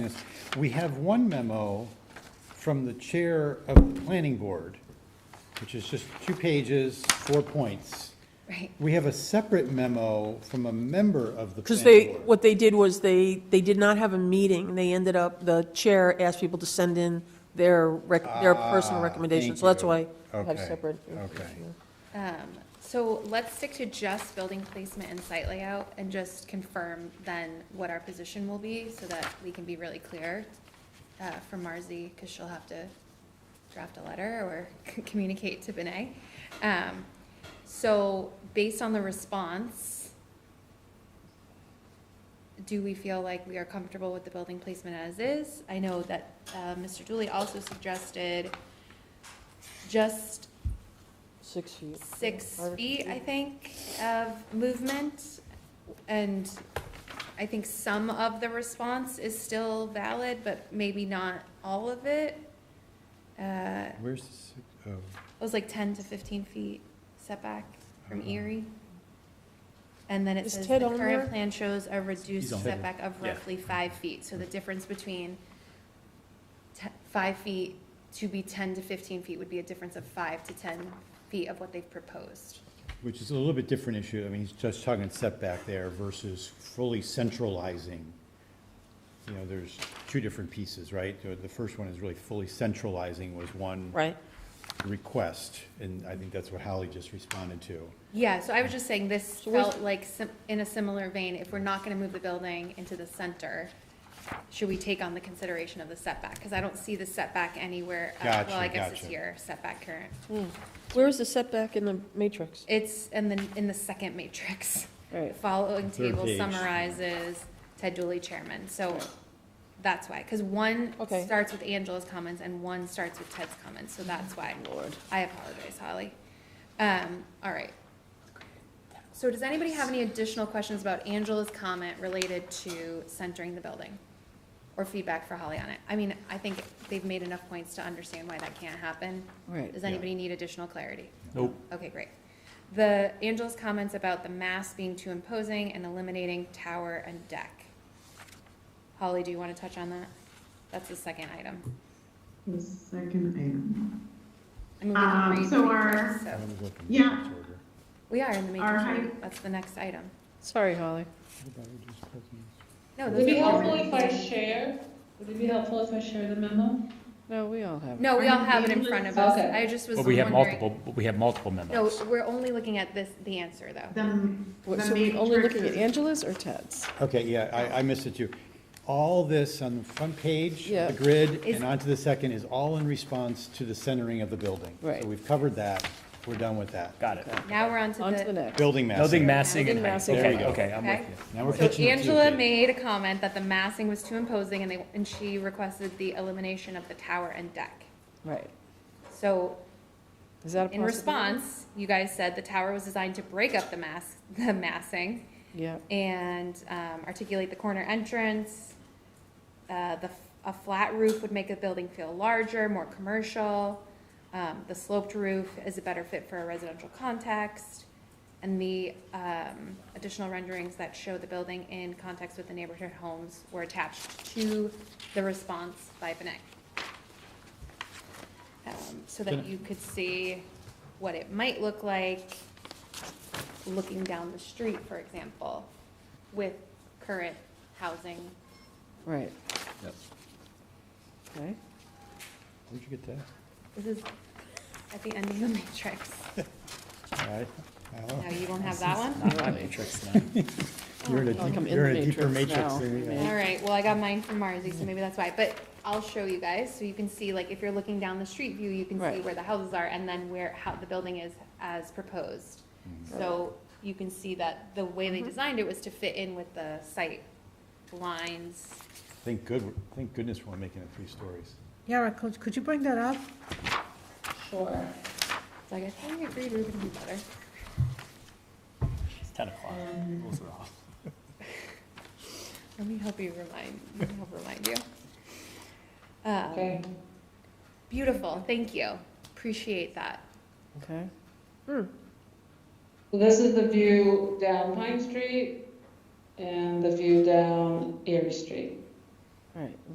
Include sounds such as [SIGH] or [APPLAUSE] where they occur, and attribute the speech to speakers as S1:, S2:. S1: this. We have one memo from the chair of the planning board, which is just two pages, four points.
S2: Right.
S1: We have a separate memo from a member of the
S3: Because
S1: planning
S3: they,
S1: board.
S3: what they did was they, they did not have a meeting. They ended up, the chair asked people to send in their, rec- their personal
S1: Ah, thank
S3: recommendations. So that's
S1: you.
S3: why I have
S1: Okay,
S3: separate.
S1: okay.
S2: Um, So let's stick to just building placement and site layout and just confirm then what our position will be so that we can be really clear uh, for Marzi, because she'll have to draft a letter or [LAUGHS] communicate to Benay. Um, So based on the response, do we feel like we are comfortable with the building placement as is? I know that uh, Mr. Dooley also suggested just
S3: Six feet.
S2: six
S3: Five or
S2: feet, I
S3: feet.
S2: think, of movement. And I think some of the response is still valid, but maybe not all of it. Uh,
S1: Where's the, six- oh,
S2: It was like ten to fifteen feet setback from
S1: Uh-huh.
S2: Erie. And then it
S3: Is
S2: says the
S3: Ted on
S2: current
S3: there?
S2: plan shows a reduced
S1: He's on. Mm-hmm.
S2: setback of roughly five feet. So the difference between te- five feet to be ten to fifteen feet would be a difference of five to ten feet of what they've proposed.
S1: which is a little bit different issue. I mean, he's just talking setback there versus fully centralizing. You know, there's two different pieces, right? The- The first one is really fully centralizing was one
S3: Right.
S1: request, and I think that's what Holly just responded to.
S2: Yeah, so I was just saying this
S3: So where's-
S2: felt like sim- in a similar vein, if we're not gonna move the building into the center, should we take on the consideration of the setback? Cause I don't see the setback anywhere. uh,
S1: Gotcha,
S2: Well, I guess it's
S1: gotcha.
S2: here, setback current.
S3: Where is the setback in the matrix?
S2: It's in the, in the second matrix. [LAUGHS]
S3: All
S2: The
S3: right.
S2: following
S1: Third
S2: table
S1: page.
S2: summarizes Ted Dooley chairman, so that's why, cause one
S3: Okay.
S2: starts with Angela's comments and one starts with Ted's comments, so that's why.
S3: Lord.
S2: I apologize, Holly. Um, all right. So does anybody have any additional questions about Angela's comment related to centering the building? Or feedback for Holly on it? I mean, I think they've made enough points to understand why that can't happen.
S3: Right.
S2: Does anybody need additional clarity?
S4: Nope.
S2: Okay, great. The, Angela's comments about the mass being too imposing and eliminating tower and deck. Holly, do you want to touch on that? That's the second item.
S5: The second item.
S2: I mean, we didn't
S5: Um,
S2: read
S5: so
S2: the
S5: our-
S2: matrix, so-
S1: I'm gonna go from
S5: Yeah.
S1: this order.
S2: We are in the
S5: Our
S2: matrix,
S5: high-
S2: right? that's the next item.
S3: Sorry, Holly.
S2: No,
S5: Would
S2: those
S5: it be
S2: are-
S5: helpful if I share? Would it be helpful if I share the memo?
S3: No, we all have.
S2: No, we all have it in front of us,
S5: Okay.
S2: I just was
S4: But
S2: wondering.
S4: we have multiple, but we have multiple
S2: No,
S4: memos.
S2: we're only looking at this, the answer, though.
S5: The,
S3: What- So we're only looking at Angela's or Ted's?
S1: Okay, yeah, I, I missed it too. All this on the front page,
S3: Yeah.
S1: the grid,
S2: Is-
S1: and onto the second is all in response to the centering of the building.
S3: Right.
S1: So we've covered that, we're done with that.
S4: Got it.
S2: Now we're on to
S3: On to the
S2: the,
S3: next.
S1: Building mass.
S4: Building massing
S3: Building
S4: and height.
S3: massing.
S1: There you
S4: Okay,
S1: go.
S4: okay, I'm
S2: okay?
S4: with you.
S1: Now we're
S2: So
S1: pitching it to you,
S2: Angela
S1: Kate.
S2: made a comment that the massing was too imposing, and they, and she requested the elimination of the tower and deck.
S3: Right.
S2: So
S3: Is that a
S2: in
S3: possibility?
S2: response, you guys said the tower was designed to break up the mass, [LAUGHS] the massing,
S3: Yeah.
S2: and um, articulate the corner entrance. Uh, The, f- a flat roof would make the building feel larger, more commercial. Um, The sloped roof is a better fit for a residential context. And the um, additional renderings that show the building in context with the neighborhood homes were attached to the response by Benek. Um, So that you could see what it might look like looking down the street, for example, with current housing.
S3: Right.
S1: Yep.
S3: Okay.
S1: Where'd you get that?
S2: This is at the end of the matrix.
S1: All right.
S2: Now, you don't have that
S4: [LAUGHS]
S2: one?
S4: Not my matrix now.
S1: You're in a,
S3: I feel like I'm
S1: deep-
S3: in
S1: you're
S3: the
S1: in a deeper
S3: matrix
S1: matrix
S3: now.
S1: than we are.
S2: All right, well, I got mine from Marzi, so maybe that's why, but I'll show you guys, so you can see, like, if you're looking down the street view, you can see
S3: Right.
S2: where the houses are, and then where, how the building is as proposed. So you can see that the way they designed it was to fit in with the site lines.
S1: Thank good, thank goodness we're making it three stories.
S6: Yara, could, could you bring that up?
S5: Sure.
S2: So I guess I agreed we were gonna do better.
S4: It's 10 o'clock. Rules are off.
S2: Let me help you remind, let me help remind you. Um,
S5: Okay.
S2: Beautiful, thank you. Appreciate that.
S3: Okay.
S7: So This is the view down Pine Street and the view down Erie Street.
S3: All right.